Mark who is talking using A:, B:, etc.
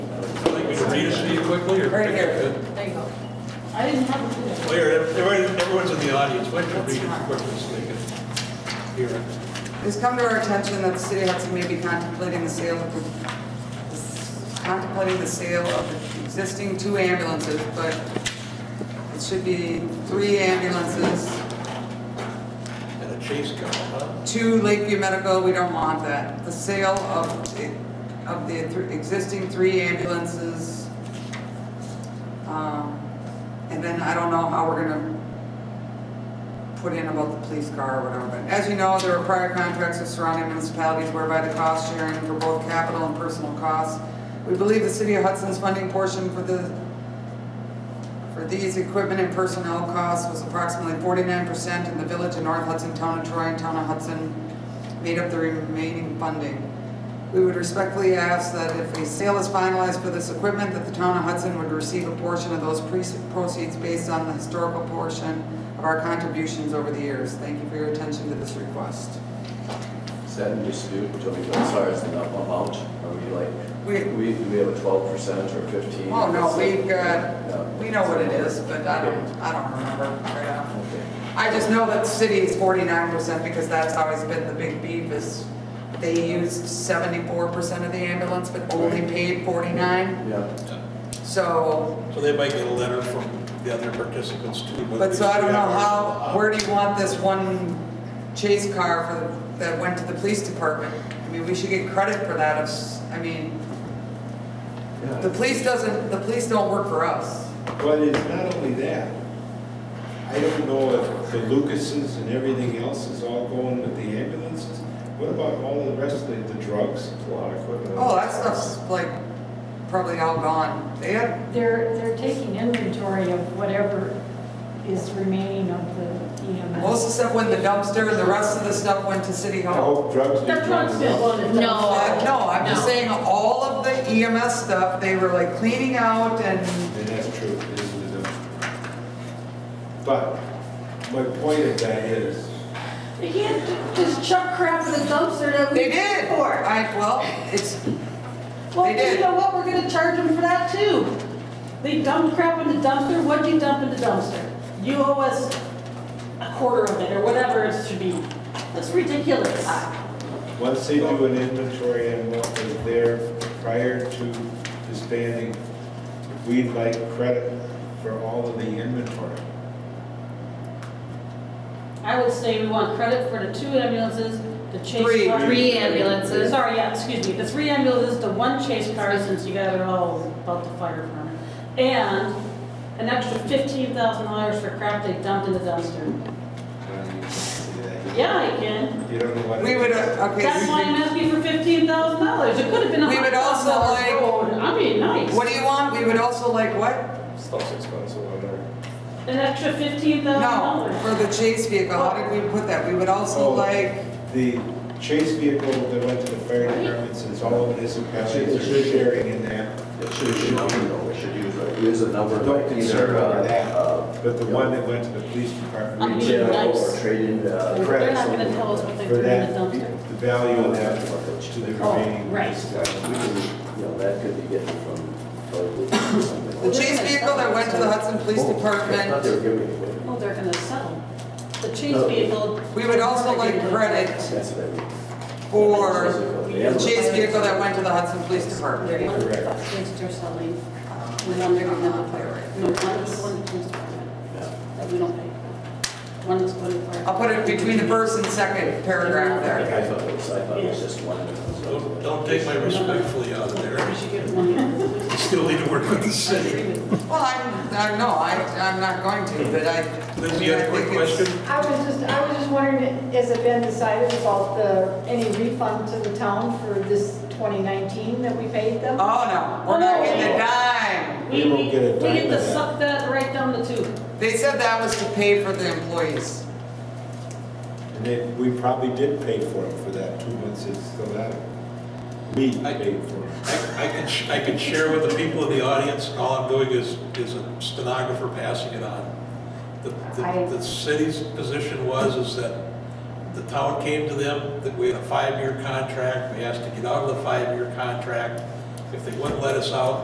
A: read it to you quickly, or?
B: Right here, there you go. I didn't have a clue.
A: Well, here, everyone- everyone's in the audience, why don't you read it quickly so they can hear it?
C: It's come to our attention that the city of Hudson may be contemplating the sale of, the- contemplating the sale of the existing two ambulances, but it should be three ambulances,
A: And a chase car, huh?
C: two Lakeview Medical, we don't want that. The sale of, the- of the thr- existing three ambulances. Um, And then I don't know how we're gonna put in about the police car or whatever. But as you know, there are prior contracts with surrounding municipalities whereby the cost sharing for both capital and personal costs. We believe the city of Hudson's funding portion for the for these, equipment and personnel costs was approximately forty-nine percent in the village of North Hudson, town of Troy, and town of Hudson made up the remaining funding. We would respectfully ask that if a sale is finalized for this equipment, that the town of Hudson would receive a portion of those pre- proceeds based on the historical portion of our contributions over the years. Thank you for your attention to this request.
D: Is that in dispute, Joey, as far as the amount? Are we like,
C: We-
D: we, do we have a twelve percent or fifteen?
C: Oh, no, we've
D: No.
C: got, we know what it is, but I don't, I don't remember right off. I just know that the city is forty-nine percent because that's always been the big beef is they used seventy-four percent of the ambulance, but only
D: Right.
C: paid forty-nine.
D: Yeah,
C: So,
A: So they might get a letter from the other participants too. whether
C: but so I don't
A: they-
C: know how, where do you want this one chase car for, that went to the police department? I mean, we should get credit for that, It's- I mean, the
D: yeah.
C: police doesn't, the police don't work for us.
E: But it's not only that. I don't know if the Lucases and everything else is all going with the ambulances. What about all the rest of the, the drugs, a lot of equipment?
C: Oh, that stuff's like probably all gone. They had,
F: They're, they're taking inventory of whatever is remaining of the
B: E
F: EMS.
C: most of the stuff went in the dumpster and the rest of the stuff went to city
E: I
C: hall.
E: hope drugs. do
B: That truck's
E: drugs.
B: been loaded.
G: No.
C: Uh, No, I'm
G: No.
C: just saying, all of the EMS stuff, they were like cleaning out and,
E: And that's true, it is in the dumpster. But my point of that is,
B: You can't ju- just chuck crap in the dumpster that we.
C: they did.
B: For.
C: I, well, it's,
B: Well,
C: They did.
B: you know what, we're gonna charge them for that too. They dumped crap in the dumpster, what'd you dump in the dumpster? You owe us a quarter of it, or whatever it should be. That's ridiculous.
E: once they do an inventory on what was there prior to disbanding, we'd like credit for all of the inventory.
B: I would say we want credit for the two ambulances, the chase.
C: Three.
B: car-
G: Three ambulances.
B: Sorry, yeah, excuse me, the three ambulances, the one chase car, since you guys are all about the fire department, and an extra fifteen thousand dollars for crap they dumped in the dumpster.
E: Um, you can see that.
B: Yeah, I can.
E: You don't know what. it
C: we
E: is.
C: would, uh, okay.
B: That's why I'm asking for fifteen thousand dollars, it could have been a
C: We
B: hundred
C: would also
B: thousand dollar
C: like-
B: road, I mean, nice.
C: What do you want? We would also like what?
E: Stuff's expensive, I know.
B: An extra fifteen thousand
C: No, for
B: dollars.
C: the chase vehicle, how did we put that? We would also
E: Oh.
C: like,
E: The chase vehicle that went to the fire department, since all of this municipalities are sharing in that,
D: It should use a number, though, we should use, a- use a number
E: Don't
D: like
E: concern
D: either, uh,
E: over that.
D: uh.
E: but the
D: you know,
E: one that went to the police department,
B: I'm
E: we
B: being
D: Retail
B: nice.
D: or trade-in, uh.
B: They're
E: credit
B: not gonna tell us what they
E: for
B: threw in the
E: that,
B: dumpster.
E: the value of that to the
B: Oh,
E: remaining.
B: right.
D: uh, We can, you know, that could be getting from, probably
C: the
D: something.
C: chase vehicle that went to the Hudson Police
D: Oh, I thought they were
C: Department,
D: giving it away.
B: Oh, they're gonna settle. The chase
D: No.
B: vehicle.
C: we would also like credit
D: That's what I mean.
C: for the chase vehicle that went to the Hudson Police
B: They're
C: Department.
B: one of the
E: Correct.
B: things are selling, we don't, they're gonna play right. No, one is one police department
D: Yeah.
B: that we don't pay for. One is going to fire.
C: I'll put it between the first and second paragraph there.
D: I thought it was, I thought it was just one.
A: Don't, don't take my respectfully out of there,
B: We should get one. I
A: you still need to work with the
B: agree
A: city.
B: with you.
C: Well, I'm, I, no, I, I'm not going to, but I.
A: Lindsay, you had a
C: I
A: quick
C: think it's-
A: question?
H: I was just, I was just wondering, has it been decided about the, any refund to the town for this 2019 that we paid them?
C: Oh, no, we're not getting a dime.
E: We won't get a
B: We get
E: dime
B: to
E: of that.
B: suck that right down the tube.
C: They said that was to pay for the employees.
E: And then, we probably did pay for it for that two months, it's still out. We paid for it.
A: I I can, sh- I can share with the people in the audience, all I'm doing is, is a stenographer passing it on. The,
H: I-
A: the- the city's position was, is that the town came to them, that we had a five-year contract, we asked to get out of the five-year contract. If they wouldn't let us out,